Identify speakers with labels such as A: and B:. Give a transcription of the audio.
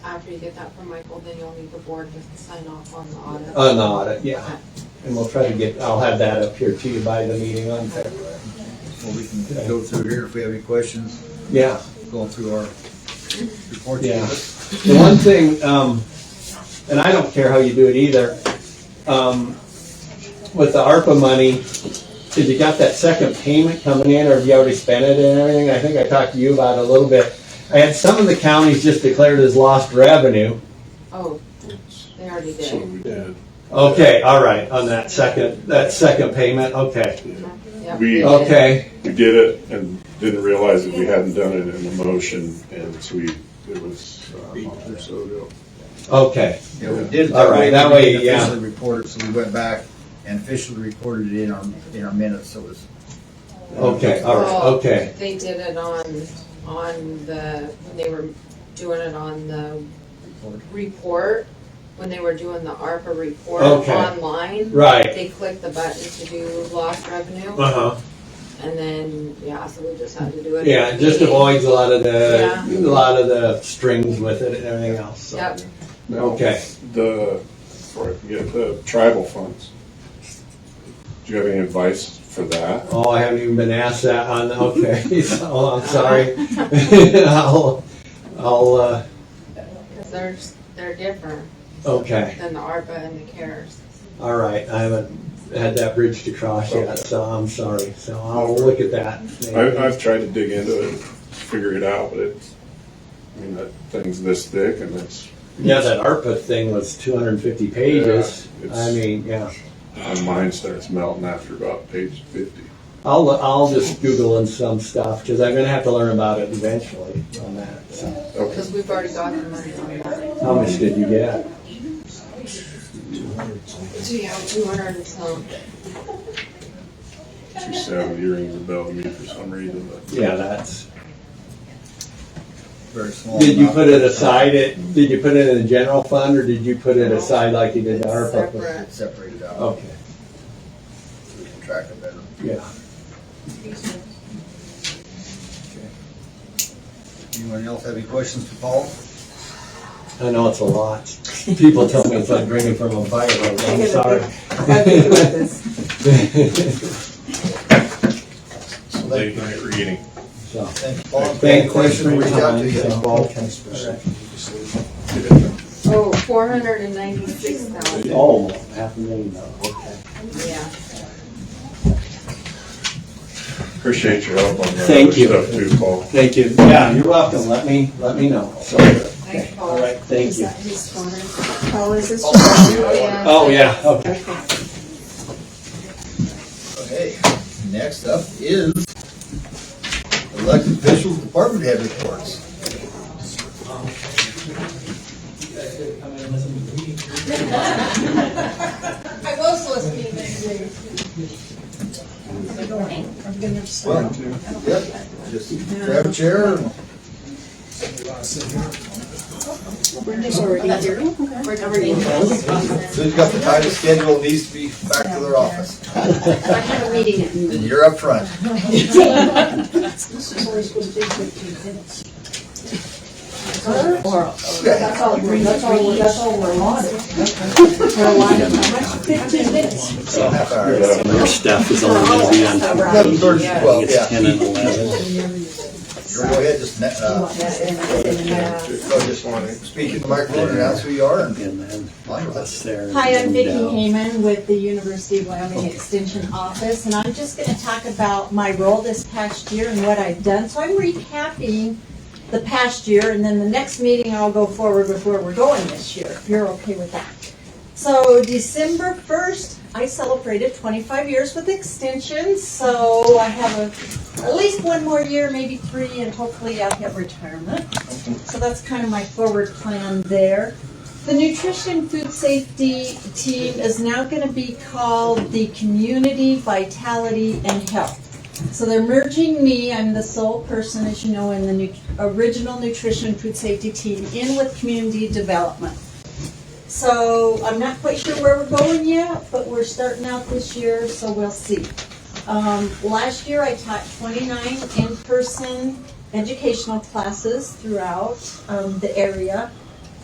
A: after you get that from Michael, then you'll need the board to sign off on the audit.
B: On the audit, yeah. And we'll try to get, I'll have that up here too by the meeting on February.
C: Well, we can go through here if we have any questions,
B: Yeah,
C: going through our reports.
B: yeah. The one thing, um, and I don't care how you do it either, um, with the ARPA money, if you got that second payment coming in, or have you already spent it and everything? I think I talked to you about it a little bit. I had some of the counties just declared as lost revenue.
A: Oh, they already
D: So
A: did.
D: we did.
B: Okay, all right, on that second, that second payment, okay.
A: Yep,
D: We-
A: they did.
B: Okay,
D: We did it and didn't realize that we hadn't done it in a motion, and so we, it was uh, a month or so ago.
B: okay,
C: Yeah, we did it
B: All
C: that
B: right,
C: way.
B: that
C: we
B: way,
C: didn't
B: yeah.
C: Officially reported, so we went back and officially recorded it in our, in our minutes, so it was.
B: okay, all right,
A: Well,
B: okay.
A: They did it on, on the, when they were doing it on the report, when they were doing the ARPA report
B: Okay.
A: online,
B: Right.
A: they clicked the button to do lost revenue,
B: Uh-huh.
A: and then, yeah, so we just had to do it.
B: Yeah, it just avoids a lot of the,
A: Yeah.
B: a lot of the strings with it and everything else, so.
A: Yep,
D: Now,
B: Okay.
D: The, before I forget, the tribal funds. Do you have any advice for that?
B: Oh, I haven't even been asked that on, okay, so oh, I'm sorry. I'll, I'll, uh,
A: because they're, they're different
B: okay,
A: than the ARPA and the CARES.
B: all right, I haven't had that bridge to cross yet, so I'm sorry, so I'll look at that.
D: I, I've tried to dig into it, figure it out, but it's, I mean, that thing's this thick and it's,
B: Yeah, that ARPA thing was two hundred and fifty pages,
D: Yeah, it's-
B: I mean, yeah.
D: my mind starts melting after about page fifty.
B: I'll, I'll just Google in some stuff, cause I'm gonna have to learn about it eventually on that, so.
D: Okay,
A: Because we've already got the money on that.
B: How much did you get?
A: So, yeah, two hundred and some.
D: two seventy rings a bell to me for some reason, but.
B: Yeah, that's.
C: Very small.
B: Did you
C: amount.
B: put it aside, it, did you put it in the general fund, or did you put it aside like you did the ARPA?
A: Separate.
C: It Separated out,
B: Okay,
C: so we can track it better.
B: yeah.
C: Anyone else have any questions for Paul?
B: I know it's a lot. People tell me it's like drinking from a fire, hose. I'm sorry.
D: Late night reading.
B: So,
C: Thank you, Paul. If you have
B: Thank
C: any
B: you
C: questions, reach out to you.
B: Paul.
A: Oh, four hundred and ninety-six thousand,
B: Oh, half a million dollars, okay.
A: yeah.
D: Appreciate your help on that
B: Thank
D: other
B: you.
D: stuff too, Paul.
B: Thank you. Yeah, you're welcome, let me, let me know. So,
A: Thanks, Paul.
B: All right, thank
E: Is
B: you.
E: that his phone? Oh, is this?
A: Oh, yeah.
B: Oh, yeah, okay.
C: Okay, next up is elected officials, department head reports.
E: I was listening, thank you. I'm gonna have to.
C: Well, yep, just grab a chair. and-
E: already here. We're already
C: Who's got the tightest schedule needs to be back to their office.
F: I had a meeting at noon.
C: And you're up front.
E: This is where it's supposed to be fifteen minutes.
F: Or
C: Okay.
E: all, that's all, that's all we're on. Fifteen minutes.
C: Half hour.
G: Your stuff is all gonna be on,
C: Eleven thirty,
A: Yeah.
C: twelve,
G: it's
C: yeah.
G: ten and eleven.
C: Go ahead, just, ne- uh,
A: Yeah.
C: go just speak in the microphone, announce who you are and
G: And then
C: like us.
G: Sarah.
H: Hi, I'm Vicki
G: Dow.
H: Hayman with the University of Wyoming Extension Office, and I'm just gonna talk about my role this past year and what I've done. So I'm recapping the past year, and then the next meeting I'll go forward with where we're going this year, if you're okay with that. So December first, I celebrated twenty-five years with Extension, so I have a, at least one more year, maybe three, and hopefully I'll hit retirement. So that's kind of my forward plan there. The nutrition food safety team is now going to be called the Community Vitality and Health. So they're merging me, I'm the sole person, as you know, in the nu- original nutrition food safety team, in with community development. So I'm not quite sure where we're going yet, but we're starting out this year, so we'll see. Um, Last year, I taught 29 in-person educational classes throughout um, the area.